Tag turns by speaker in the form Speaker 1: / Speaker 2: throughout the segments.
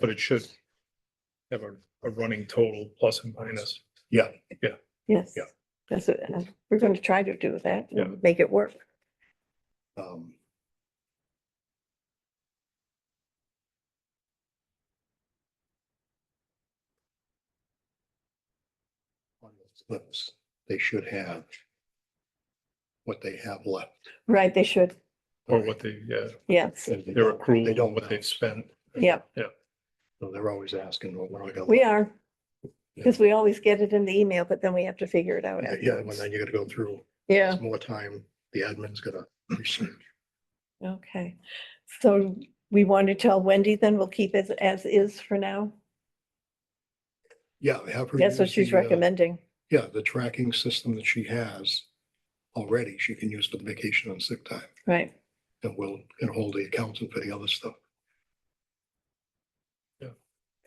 Speaker 1: but it should have a, a running total plus and minus.
Speaker 2: Yes.
Speaker 1: Yeah.
Speaker 2: That's what, uh, we're going to try to do that,
Speaker 1: Yeah.
Speaker 2: and make it work.
Speaker 3: Um, on those Slips, they should have what they have left.
Speaker 2: Right, they should,
Speaker 1: Or what they, yeah,
Speaker 2: yes,
Speaker 3: And they
Speaker 1: their
Speaker 3: don't- They
Speaker 1: accrual,
Speaker 3: don't,
Speaker 1: what
Speaker 3: know.
Speaker 1: they've spent.
Speaker 2: yeah,
Speaker 3: So they're always asking, well, what do I got?
Speaker 2: we
Speaker 3: left?
Speaker 2: are. Because we always get it in the email, but then we have to figure it out.
Speaker 3: Yeah, Yeah, and
Speaker 2: afterwards.
Speaker 3: then you gotta go through.
Speaker 2: Yeah,
Speaker 3: It's More time, the admin's gonna research.
Speaker 2: okay. So we want to tell Wendy then we'll keep it as is for now?
Speaker 3: Yeah, have her.
Speaker 2: That's what
Speaker 3: use
Speaker 2: she's
Speaker 3: the, uh,
Speaker 2: recommending.
Speaker 3: Yeah, the tracking system that she has already, she can use for the vacation and sick time.
Speaker 2: Right,
Speaker 3: And we'll, and hold the accountant for the other stuff.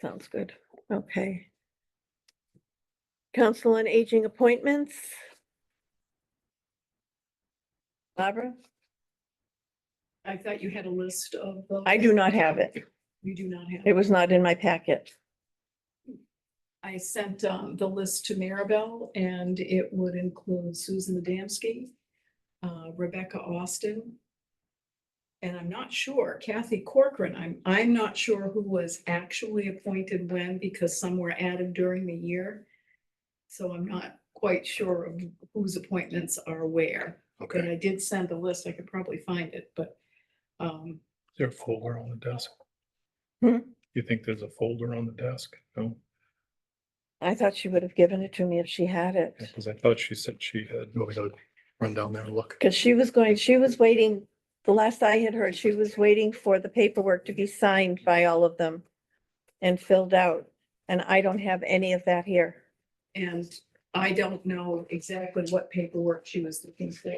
Speaker 2: sounds good. Okay. Council on Aging appointments. Barbara,
Speaker 4: I thought you had a list of. those.
Speaker 2: I do not have it.
Speaker 4: You do not have.
Speaker 2: It
Speaker 4: it.
Speaker 2: was not in my packet.
Speaker 4: I sent um, the list to Maribel and it would include Susan Adamski, uh, Rebecca Austin. And I'm not sure Kathy Corcoran, I'm, I'm not sure who was actually appointed when because some were added during the year. So I'm not quite sure of whose appointments are where, but
Speaker 3: Okay,
Speaker 4: I did send the list. I could probably find it, but um,
Speaker 1: There a folder on the desk?
Speaker 2: Hmm?
Speaker 1: You think there's a folder on the desk? No,
Speaker 2: I thought she would have given it to me if she had it,
Speaker 1: because I thought she said she had.
Speaker 3: you want me to run down there and look?
Speaker 2: because she was going, she was waiting, the last I had heard, she was waiting for the paperwork to be signed by all of them and filled out, and I don't have any of that here.
Speaker 4: And I don't know exactly what paperwork she was looking for.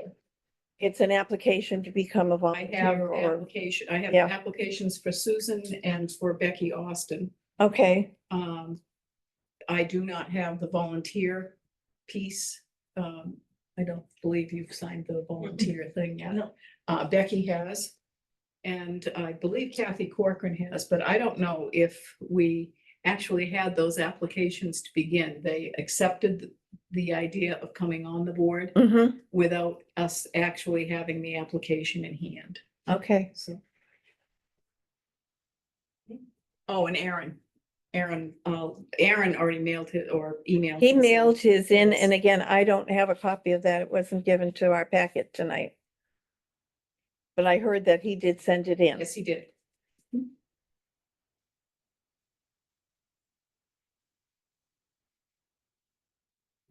Speaker 2: It's an application to become a
Speaker 4: I have
Speaker 2: volunteer or,
Speaker 4: application, I have
Speaker 2: Yeah.
Speaker 4: applications for Susan and for Becky Austin.
Speaker 2: okay,
Speaker 4: Um, I do not have the volunteer piece. Um, I don't believe you've signed the volunteer thing yet. Uh, Becky has. And I believe Kathy Corcoran has, but I don't know if we actually had those applications to begin. They accepted the idea of coming on the board
Speaker 2: hmm
Speaker 4: without us actually having the application in hand,
Speaker 2: okay,
Speaker 4: so. Oh, and Aaron, Aaron, uh, Aaron already mailed it or emailed.
Speaker 2: he
Speaker 4: his.
Speaker 2: mailed his in, and again, I don't have a copy of that, it wasn't given to our packet tonight. But I heard that he did send it in.
Speaker 4: Yes, he did.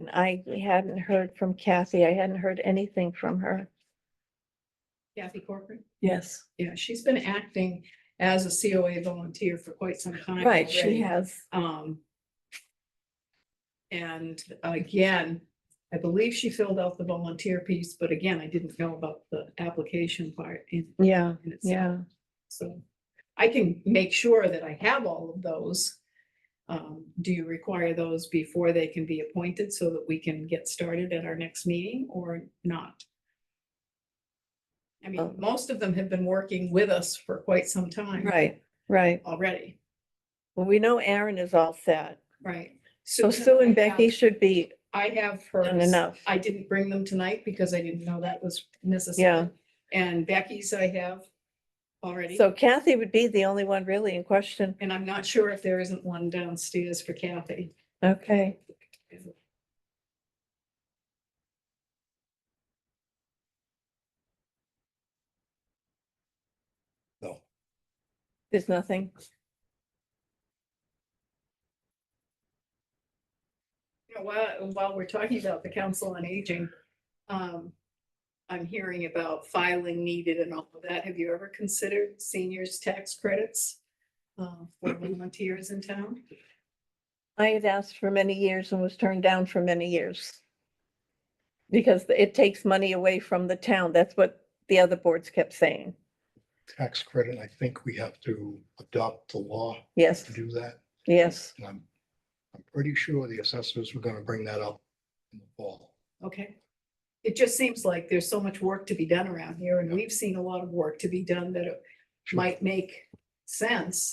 Speaker 2: And I hadn't heard from Kathy. I hadn't heard anything from her.
Speaker 4: Kathy Corcoran.
Speaker 2: Yes.
Speaker 4: Yeah, she's been acting as a COA volunteer for quite some time.
Speaker 2: Right, she
Speaker 4: already.
Speaker 2: has.
Speaker 4: Um. And again, I believe she filled out the volunteer piece, but again, I didn't know about the application part in.
Speaker 2: Yeah,
Speaker 4: in itself.
Speaker 2: yeah.
Speaker 4: So I can make sure that I have all of those. Um, do you require those before they can be appointed so that we can get started at our next meeting or not? I mean,
Speaker 2: Um.
Speaker 4: most of them have been working with us for quite some time.
Speaker 2: Right, right.
Speaker 4: Already,
Speaker 2: Well, we know Aaron is all set.
Speaker 4: right?
Speaker 2: So Sue and
Speaker 4: I have-
Speaker 2: Becky should be
Speaker 4: I have
Speaker 2: done
Speaker 4: hers.
Speaker 2: enough.
Speaker 4: I didn't bring them tonight because I didn't know that was necessary. And Becky's I have already.
Speaker 2: So Kathy would be the only one really in question.
Speaker 4: And I'm not sure if there isn't one downstairs for Kathy.
Speaker 2: Okay.
Speaker 3: No.
Speaker 2: There's nothing.
Speaker 4: You know, While, while we're talking about the Council on Aging, um, I'm hearing about filing needed and all of that. Have you ever considered seniors' tax credits? uh, for volunteers in town?
Speaker 2: I had asked for many years and was turned down for many years. Because it takes money away from the town. That's what the other boards kept saying.
Speaker 3: Tax credit, I think we have to adopt the law
Speaker 2: Yes,
Speaker 3: to do that.
Speaker 2: yes.
Speaker 3: And I'm, I'm pretty sure the assessors were gonna bring that up in the fall.
Speaker 4: Okay. It just seems like there's so much work to be done around here and we've seen a lot of work to be done that it
Speaker 3: Sure.
Speaker 4: might make sense